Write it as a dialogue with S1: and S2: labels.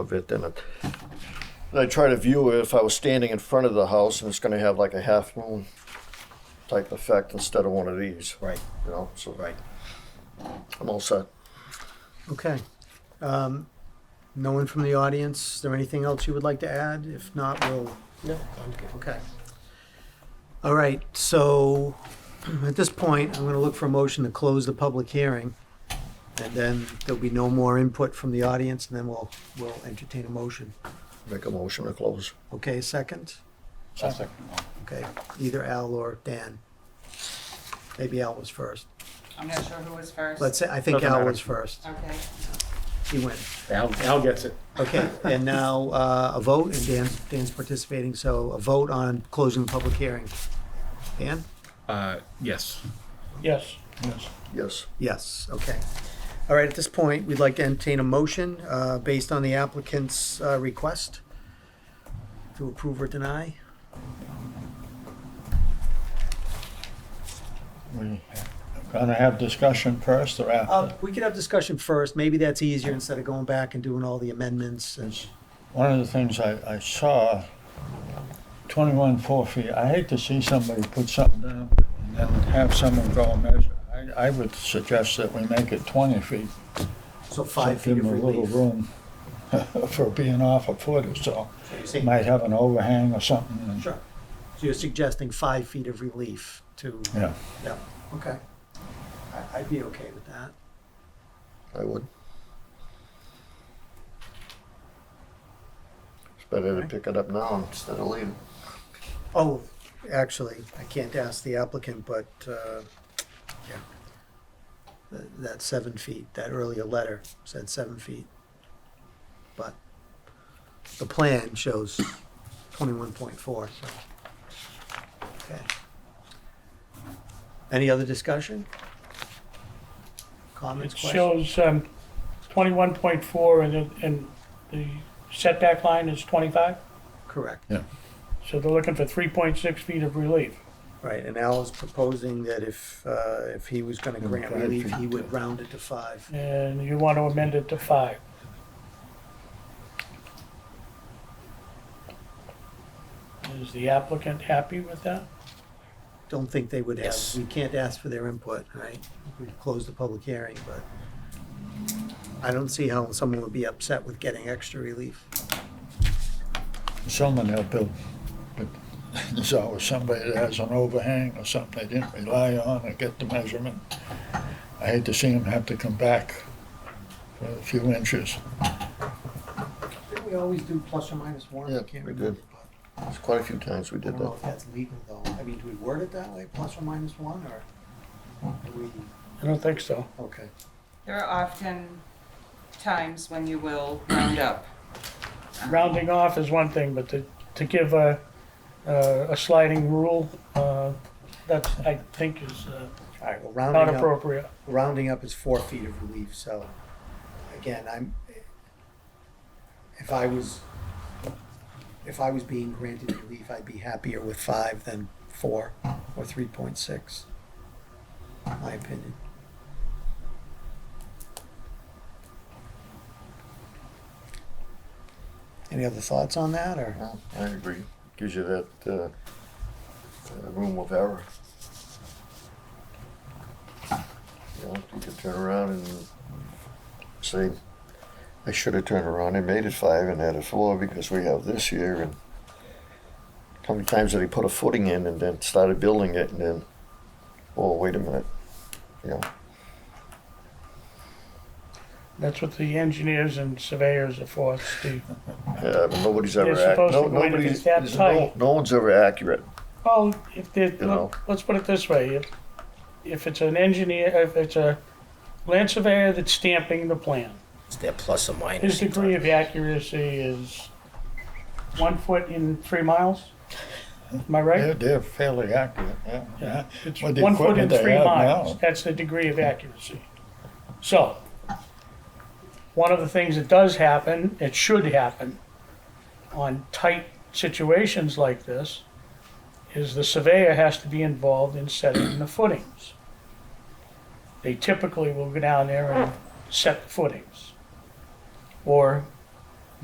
S1: of it and it- and I try to view it if I was standing in front of the house and it's gonna have like a half moon type effect instead of one of these,
S2: Right,
S1: you know, so
S2: right.
S1: I'm all set.
S2: Okay. Um, No one from the audience? Is there anything else you would like to add? If not, we'll.
S1: No,
S2: Okay. All right, so at this point, I'm going to look for a motion to close the public hearing. And then there'll be no more input from the audience, and then we'll, we'll entertain a motion.
S1: Make a motion to close.
S2: Okay, second? Okay, either Al or Dan. Maybe Al was first.
S3: I'm not sure who was first.
S2: Let's say, I think
S4: Doesn't
S2: Al
S4: matter.
S2: was first.
S3: Okay.
S2: He went.
S4: Al, Al gets it.
S2: Okay, and now uh, a vote, and Dan, Dan's participating, so a vote on closing the public hearing. Dan?
S4: Uh, yes.
S5: Yes. Yes.
S1: Yes,
S2: Yes, okay. All right, at this point, we'd like to entertain a motion uh, based on the applicant's uh, request to approve or deny.
S5: We gonna have discussion first or
S2: Uh,
S5: after?
S2: We could have discussion first, maybe that's easier instead of going back and doing all the amendments and,
S5: One of the things I, I saw, twenty-one four feet, I hate to see somebody put something down and then have someone go and measure. I, I would suggest that we make it twenty feet.
S2: so five
S5: so
S2: feet
S5: give
S2: of
S5: them a little
S2: relief.
S5: room for being off a foot or so.
S2: See?
S5: Might have an overhang or something. and-
S2: Sure. So you're suggesting five feet of relief to,
S5: Yeah,
S2: yeah, okay. I- I'd be okay with that.
S1: I would. It's better to pick it up now instead of later.
S2: Oh, actually, I can't ask the applicant, but, uh, yeah. Th- That seven feet, that earlier letter said seven feet. But the plan shows twenty-one point four, so. Okay. Any other discussion? Comments,
S6: It
S2: questions?
S6: shows um, 21.4 and the- and the setback line is 25,
S2: Correct,
S6: so they're looking for 3.6 feet of relief.
S2: right, and Al is proposing that if, uh, if he was gonna grant
S5: five
S2: relief,
S5: feet,
S2: he would
S5: yeah.
S2: round it to five.
S6: And you want to amend it to 5. Is the applicant happy with that?
S2: don't think they would have,
S4: Yes.
S2: we can't ask for their input, right? We closed the public hearing, but I don't see how someone would be upset with getting extra relief.
S5: someone they'll build, but there's always somebody that has an overhang or something they didn't rely on or get the measurement. I hate to see them have to come back for a few inches.
S2: Didn't we always do plus or minus one?
S1: Yeah, we did. There's quite a few times we
S2: I
S1: did
S2: don't know
S1: that.
S2: if that's legal though. I mean, do we word it that way, plus or minus one, or do we,
S6: I don't think so.
S2: okay.
S3: There are often times when you will round up.
S6: Rounding off is one thing, but to to give a uh, a sliding rule, uh, that's, I think, is uh,
S2: All right, well,
S6: not
S2: rounding up,
S6: appropriate.
S2: rounding up is four feet of relief, so again, I'm, if I was, if I was being granted relief, I'd be happier with five than four or three point six. My opinion. Any other thoughts on that, or?
S1: Yeah, I agree. Gives you that uh, uh, room of error. You know, you could turn around and say, I should have turned around and made it five and added four because we have this here and how many times did he put a footing in and then started building it and then, oh, wait a minute, you know,
S6: That's what the engineers and surveyors are for, Steve.
S1: yeah, but Uh, nobody's ever,
S6: They're
S1: ac-
S6: supposed
S1: no,
S6: to wait if
S1: nobody's,
S6: it's that
S1: there's no,
S6: tight.
S1: no one's ever accurate.
S6: Well, if they,
S1: You know.
S6: let's put it this way, if, if it's an engineer, if it's a land surveyor that's stamping the plan,
S2: Is there plus or minus?
S6: his degree of accuracy is one foot in three miles? Am I
S5: They're,
S6: right?
S5: they're fairly accurate, yeah, yeah.
S6: It's
S5: With the
S6: one foot in
S5: equipment they
S6: three
S5: have
S6: miles,
S5: now.
S6: that's the degree of accuracy. So, one of the things that does happen, it should happen, on tight situations like this, is the surveyor has to be involved in setting the footings. They typically will go down there and set the footings. Or